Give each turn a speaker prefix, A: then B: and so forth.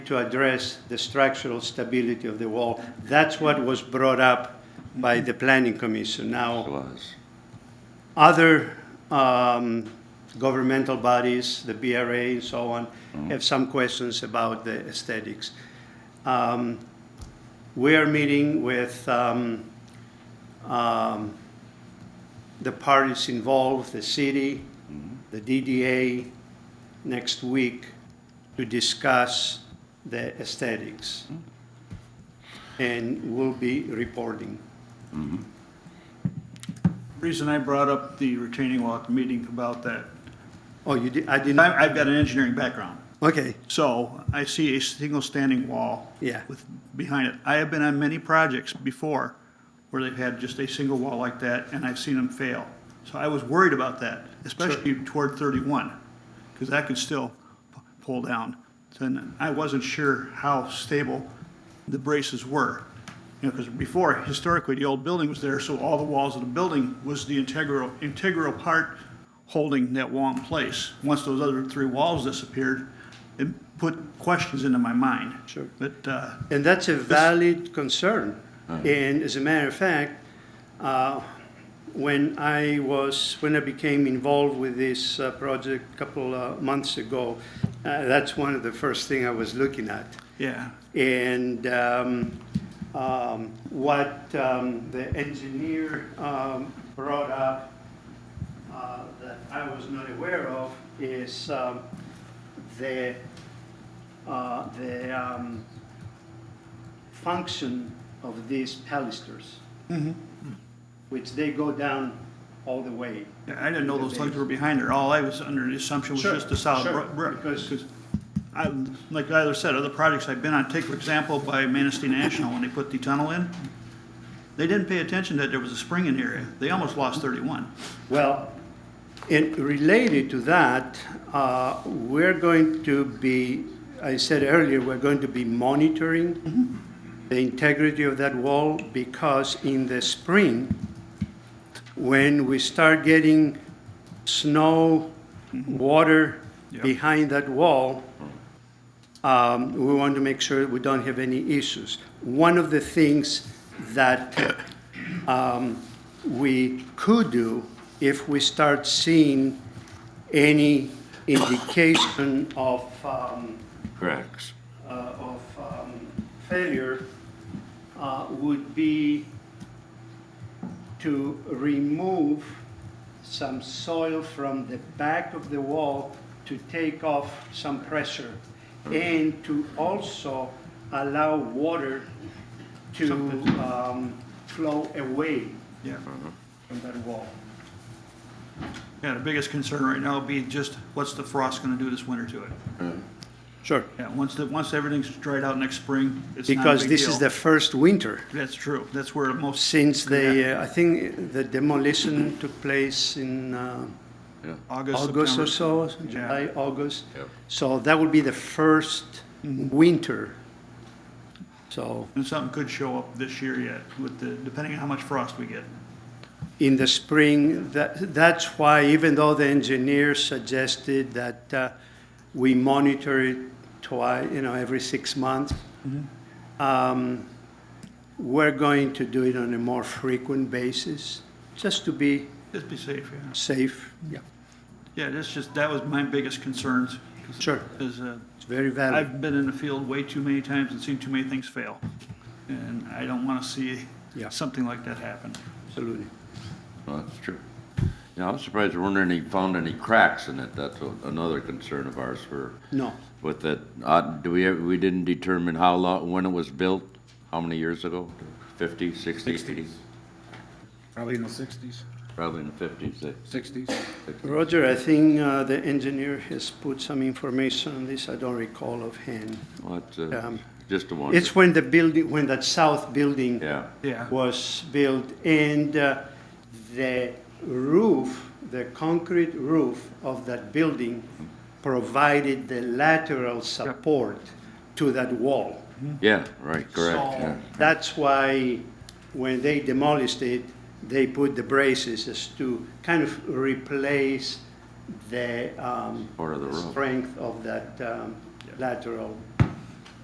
A: to address the structural stability of the wall. That's what was brought up by the planning commission. Now,
B: It was.
A: other um, governmental bodies, the BRA and so on, have some questions about the aesthetics. Um, We are meeting with um, um, the parties involved, the city, the DDA, next week to discuss the aesthetics. And we'll be reporting.
C: Reason I brought up the retaining wall at the meeting about that,
A: Oh, you did, I didn't,
C: I, I've got an engineering background,
A: okay.
C: so I see a single standing wall.
A: Yeah.
C: With, behind it. I have been on many projects before where they've had just a single wall like that, and I've seen them fail. So I was worried about that, especially toward thirty-one, because that could still p- pull down. And I wasn't sure how stable the braces were. You know, because before, historically, the old building was there, so all the walls of the building was the integral, integral part holding that wall in place. Once those other three walls disappeared, it put questions into my mind.
A: Sure.
C: But, uh,
A: And that's a valid concern. And as a matter of fact, uh, when I was, when I became involved with this uh, project a couple uh, months ago, uh, that's one of the first thing I was looking at.
C: yeah,
A: And um, um, what um, the engineer um, brought up uh, that I was not aware of is um, the, uh, the um, function of these palisters, which they go down all the way.
C: I didn't know those legs were behind there. All I was under the assumption was
A: Sure,
C: just a solid
A: sure,
C: bro- brick.
A: because-
C: Because I, like I either said, other projects I've been on, take for example by Manistee National, when they put the tunnel in, they didn't pay attention that there was a spring in the area. They almost lost thirty-one.
A: Well, and related to that, uh, we're going to be, I said earlier, we're going to be monitoring the integrity of that wall because in the spring, when we start getting snow, water
C: Yep.
A: behind that wall, um, we want to make sure we don't have any issues. One of the things that um, we could do if we start seeing any indication of, um,
B: Correct.
A: uh, of um, failure uh, would be to remove some soil from the back of the wall to take off some pressure and to also allow water to um, flow away
C: Yeah.
A: from that wall.
C: Yeah, the biggest concern right now would be just what's the frost gonna do this winter to it?
A: Sure.
C: Yeah, once the, once everything's dried out next spring, it's not a
A: Because
C: big
A: this is the
C: deal.
A: first winter
C: That's true. That's where the most.
A: since the, uh, I think the demolition took place in uh,
B: Yeah.
C: August,
A: August or
C: September.
A: so,
C: Yeah.
A: July, August.
B: Yep.
A: So that would be the first
C: Mm-hmm.
A: winter. So
C: And something could show up this year yet with the, depending on how much frost we get.
A: in the spring, that, that's why even though the engineer suggested that uh, we monitor it twice, you know, every six months, um, we're going to do it on a more frequent basis, just to be
C: Just be safe, yeah.
A: safe. Yeah.
C: Yeah, that's just, that was my biggest concerns. 'cause-
A: Sure.
C: Is, uh,
A: It's very valid.
C: I've been in the field way too many times and seen too many things fail. And I don't want to see
A: Yeah.
C: something like that happen.
A: Absolutely.
B: Well, that's true. Yeah, I'm surprised there weren't any, found any cracks in it. That's a- another concern of ours for,
A: No.
B: with that, uh, do we, ever- we didn't determine how long, when it was built? How many years ago? Fifty, sixty?
D: Probably in the sixties,
B: Probably in the fifties, eh?
D: sixties.
A: Roger, I think uh, the engineer has put some information on this. I don't recall offhand.
B: Well, it's, uh,
A: Um,
B: just a wonder.
A: It's when the building, when that south building
B: Yeah,
C: Yeah.
A: was built and uh, the roof, the concrete roof of that building provided the lateral support to that wall.
B: yeah, right, correct,
A: So
B: yeah.
A: that's why when they demolished it, they put the braces as to kind of replace the um,
B: Part of the roof.
A: strength of that um, lateral